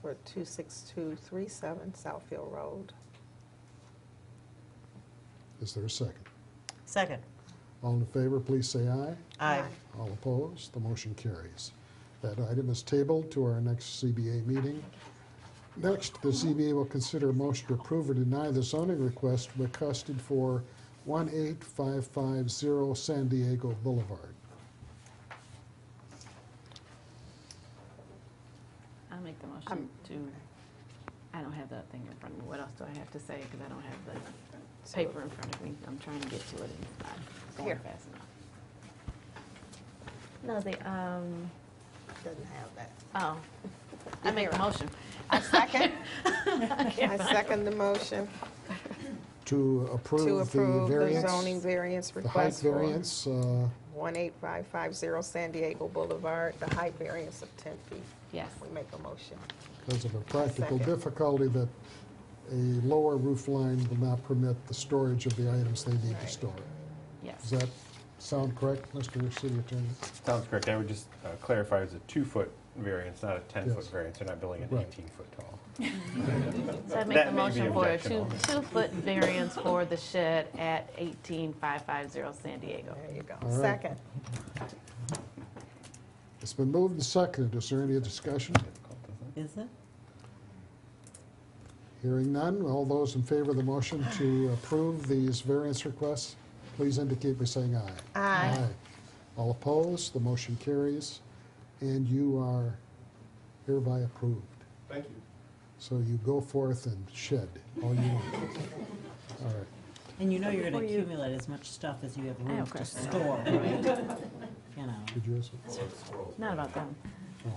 for 26237 Southfield Road. Is there a second? Second. All in favor, please say aye. Aye. Aye. All opposed, the motion carries. That item is tabled to our next CBA meeting. Next, the CBA will consider a motion to approve or deny the zoning request requested for 18550 San Diego Boulevard. I'll make the motion I'm- to, I don't have that thing in front of me. What else do I have to say? Because I don't have the paper in front of me. I'm trying to get to it and it's not Here. going fast enough. No, they, um, Doesn't have that. oh, I make a motion. I second. I can't I find it. second the motion To to approve the approve the variance. zoning variance The height request for variance, uh, 18550 San Diego Boulevard, the height variance of 10 feet. Yes. We make a motion. because of a practical Second. difficulty that a lower roof line will not permit the storage of the items they need to Right. store. Does Yes. that sound correct, Mr. City Attorney? Sounds correct. I would just uh, clarify, it's a two-foot variance, not a 10-foot Yes. variance. They're not building an Right. 18-foot tall. So I make the That may be motion for a two, objectionable. two-foot variance for the shed at eighteen five five zero San Diego. There you go. All right. Second. It's been moved and seconded. Is there any discussion? Difficult, isn't it? Is it? Hearing none, all those in favor of the motion to approve these variance requests, please indicate by saying aye. Aye. All opposed, the motion carries, and you are hereby approved. Thank you. So you go forth and shed all you want. All right. And you know you're Before gonna you- accumulate as much stuff as you have have room to questions. store, right? You know. Did you have something? Not about them. No.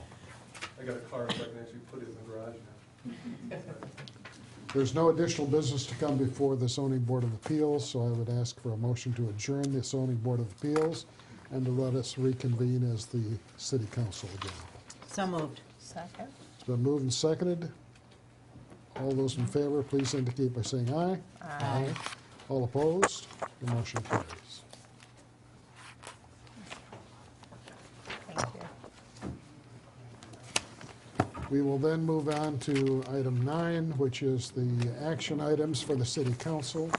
I got a car, so I can actually put it in the garage now. There's no additional business to come before the zoning board of appeals, so I would ask for a motion to adjourn the zoning board of appeals and to let us reconvene as the city council again. So moved. Second. It's been moved and seconded. All those in favor, please indicate by saying aye. Aye. All opposed, the motion carries. Thank you. We will then move on to item nine, which is the action items for the city council.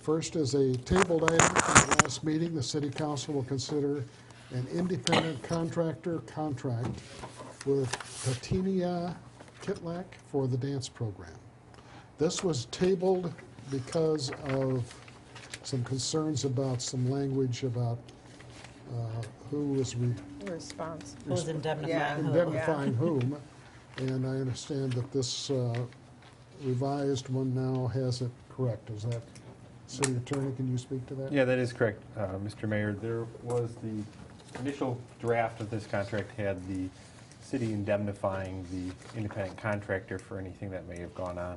First is a tabled item from the last meeting. The city council will consider an independent contractor contract with Patinia Kitlak for the dance program. This was tabled because of some concerns about some language about uh, who was re- Response. Who was indemnifying who? indemnifying whom, and I understand that this uh, revised one now has it correct. Is that, city attorney, can you speak to that? Yeah, that is correct, uh, Mr. Mayor. There was the initial draft of this contract had the city indemnifying the independent contractor for anything that may have gone on.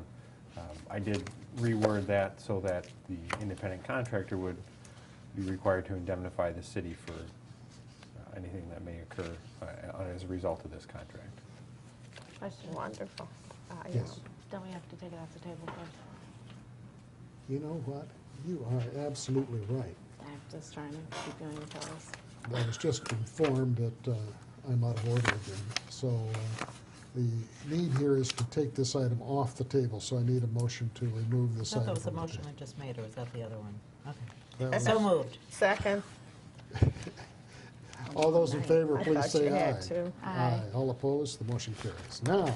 Um, I did reword that so that the independent contractor would be required to indemnify the city for uh, anything that may occur uh, as a result of this contract. Question. Wonderful. I, um, Yes. Don't we have to take it off the table first? You know what? You are absolutely right. I'm just trying to keep you on your toes. I was just informed that uh, I'm out of order again. So uh, the need here is to take this item off the table, so I need a motion to remove I this thought item. that was the from the motion I table. just made, or was that the other one? Okay. That was- So moved. Second. All those in favor, I please thought say you had aye. to. Aye. All opposed, the motion carries. Now,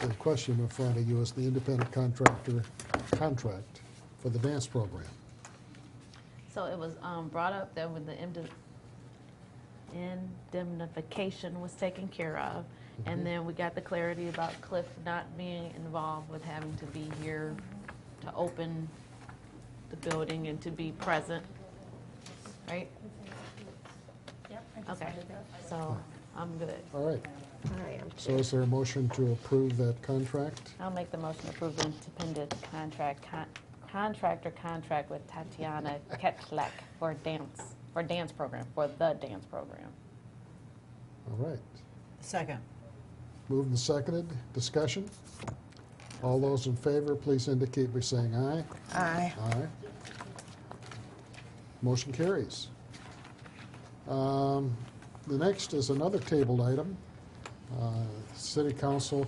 the question in front of you is the independent contractor contract for the dance program. So it was um, brought up that when the indem- indemnification was taken care of, and then we got the clarity about Cliff not being involved with having to be here to open the building and to be present, right? Yep. Okay, so I'm good. All right, I am so is there a motion to approve that contract? I'll make the motion to approve the independent contract, con- contractor contract with Tatiana Ketchlek for dance, for dance program, for the dance program. All right, Second. moved and seconded, discussion? All those in favor, please indicate by saying aye. Aye. Aye. Motion carries. Um, The next is another tabled item. Uh, City Council